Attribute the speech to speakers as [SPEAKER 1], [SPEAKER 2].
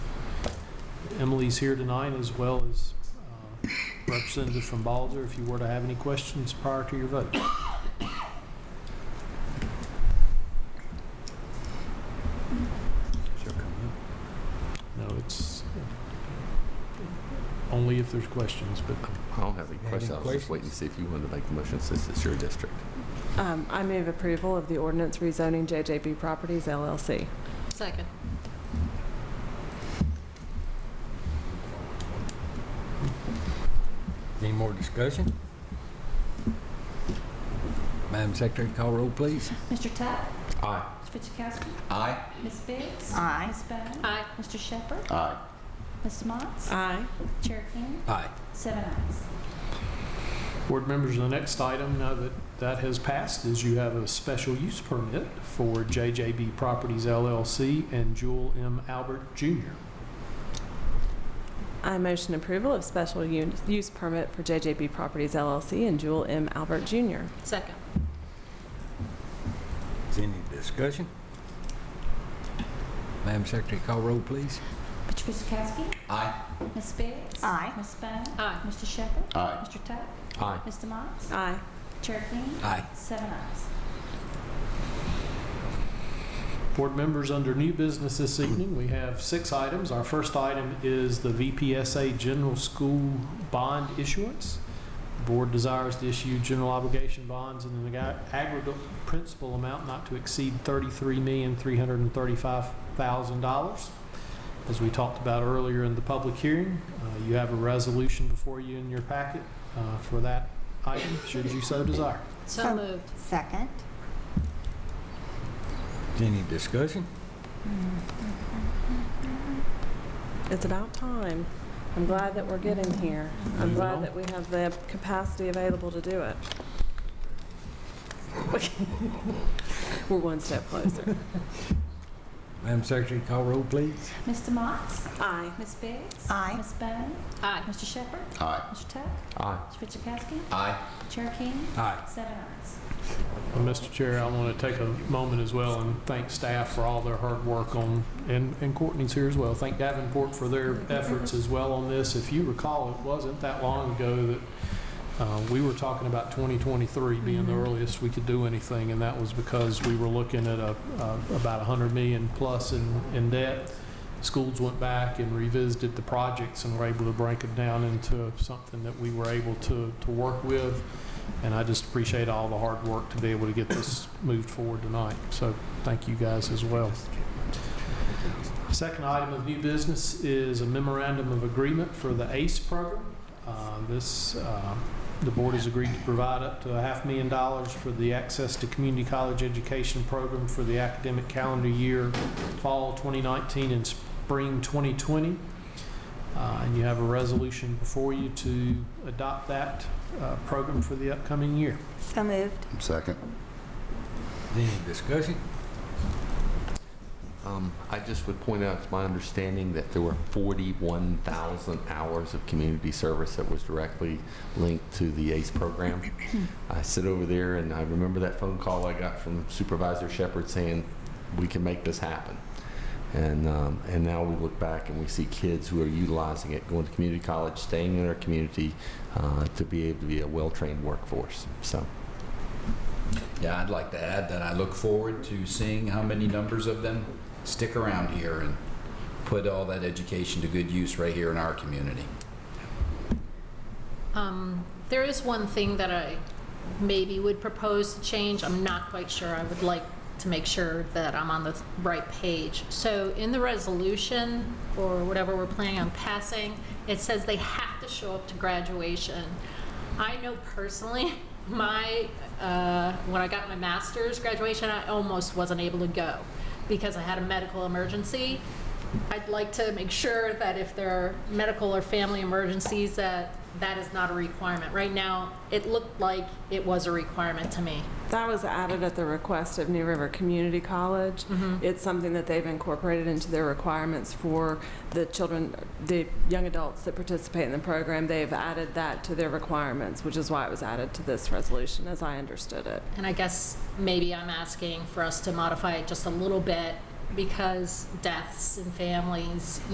[SPEAKER 1] Emily's here tonight as well as uh, Representative from Balzer, if you were to have any questions prior to your vote. No, it's uh, only if there's questions, but
[SPEAKER 2] I don't have any
[SPEAKER 3] Any
[SPEAKER 2] questions. I was just waiting to see if you wanted to make the motion since it's your district.
[SPEAKER 4] Um, I move approval of the ordinance rezoning JJB Properties LLC.
[SPEAKER 5] Second.
[SPEAKER 3] Any more discussion? Madam Secretary, call roll, please.
[SPEAKER 6] Mr. Tuck?
[SPEAKER 2] Aye.
[SPEAKER 6] Ms. Fidzikowski?
[SPEAKER 2] Aye.
[SPEAKER 6] Ms. Biggs?
[SPEAKER 5] Aye.
[SPEAKER 6] Ms. Bowden?
[SPEAKER 5] Aye.
[SPEAKER 6] Mr. Shepherd?
[SPEAKER 2] Aye.
[SPEAKER 6] Ms. Motts?
[SPEAKER 4] Aye.
[SPEAKER 6] Chair King?
[SPEAKER 3] Aye.
[SPEAKER 6] Seven ayes.
[SPEAKER 1] Board members, the next item, now that that has passed, is you have a special use permit for JJB Properties LLC and Jewel M. Albert Jr.
[SPEAKER 4] I motion approval of special un- use permit for JJB Properties LLC and Jewel M. Albert Jr.
[SPEAKER 5] Second.
[SPEAKER 3] Is any discussion? Madam Secretary, call roll, please.
[SPEAKER 6] Mr. Fidzikowski?
[SPEAKER 2] Aye.
[SPEAKER 6] Ms. Biggs?
[SPEAKER 5] Aye.
[SPEAKER 6] Ms. Bowden?
[SPEAKER 5] Aye.
[SPEAKER 6] Mr. Shepherd?
[SPEAKER 2] Aye.
[SPEAKER 6] Mr. Tuck?
[SPEAKER 2] Aye.
[SPEAKER 6] Mr. Motts?
[SPEAKER 4] Aye.
[SPEAKER 6] Chair King?
[SPEAKER 3] Aye.
[SPEAKER 6] Seven ayes.
[SPEAKER 1] Board members, under new business this evening, we have six items. Our first item is the VPSA General School Bond Issuance. The Board desires to issue general obligation bonds in an ag- aggregate principal amount not to exceed $33,335,000. As we talked about earlier in the public hearing, uh, you have a resolution before you in your packet uh, for that item, should you so desire.
[SPEAKER 5] So moved.
[SPEAKER 7] Second.
[SPEAKER 3] Is any discussion?
[SPEAKER 6] Hmm.
[SPEAKER 4] It's about time. I'm glad that we're getting here. I'm
[SPEAKER 1] Moving on.
[SPEAKER 4] glad that we have the capacity available to do it. We're one step closer.
[SPEAKER 3] Madam Secretary, call roll, please.
[SPEAKER 6] Mr. Motts?
[SPEAKER 4] Aye.
[SPEAKER 6] Ms. Biggs?
[SPEAKER 7] Aye.
[SPEAKER 6] Ms. Bowden?
[SPEAKER 5] Aye.
[SPEAKER 6] Mr. Shepherd?
[SPEAKER 2] Aye.
[SPEAKER 6] Mr. Tuck?
[SPEAKER 2] Aye.
[SPEAKER 6] Mr. Fidzikowski?
[SPEAKER 2] Aye.
[SPEAKER 6] Chair King?
[SPEAKER 3] Aye.
[SPEAKER 6] Seven ayes.
[SPEAKER 1] Well, Mr. Chair, I want to take a moment as well and thank staff for all their hard work on, and and Courtney's here as well. Thank Davenport for their efforts as well on this. If you recall, it wasn't that long ago that uh, we were talking about 2023 being the earliest we could do anything, and that was because we were looking at a, uh, about 100 million plus in, in debt. Schools went back and revisited the projects and were able to break it down into something that we were able to, to work with. And I just appreciate all the hard work to be able to get this moved forward tonight. So thank you guys as well. Second item of new business is a memorandum of agreement for the ACE program. Uh, This, uh, the board has agreed to provide up to a half million dollars for the Access to Community College Education Program for the academic calendar year, fall 2019 and spring 2020. Uh, And you have a resolution before you to adopt that uh, program for the upcoming year.
[SPEAKER 7] So moved.
[SPEAKER 8] Second.
[SPEAKER 3] Is any discussion?
[SPEAKER 2] Um, I just would point out, it's my understanding that there were 41,000 hours of community service that was directly linked to the ACE program. I sit over there and I remember that phone call I got from Supervisor Shepherd saying, "We can make this happen." And, um, and now we look back and we see kids who are utilizing it, going to community college, staying in our community uh, to be able to be a well-trained workforce. So,
[SPEAKER 9] Yeah, I'd like to add that I look forward to seeing how many numbers of them stick around here and put all that education to good use right here in our community.
[SPEAKER 5] Um, There is one thing that I maybe would propose to change. I'm not quite sure. I would like to make sure that I'm on the right page. So in the resolution, or whatever we're planning on passing, it says they have to show up to graduation. I know personally, my, uh, when I got my master's graduation, I almost wasn't able to go because I had a medical emergency. I'd like to make sure that if there are medical or family emergencies, that that is not a requirement. Right now, it looked like it was a requirement to me.
[SPEAKER 4] That was added at the request of New River Community College. It's something that they've incorporated into their requirements for the children, the young adults that participate in the program. They've added that to their requirements, which is why it was added to this resolution, as I understood it.
[SPEAKER 5] And I guess maybe I'm asking for us to modify it just a little bit because deaths and families,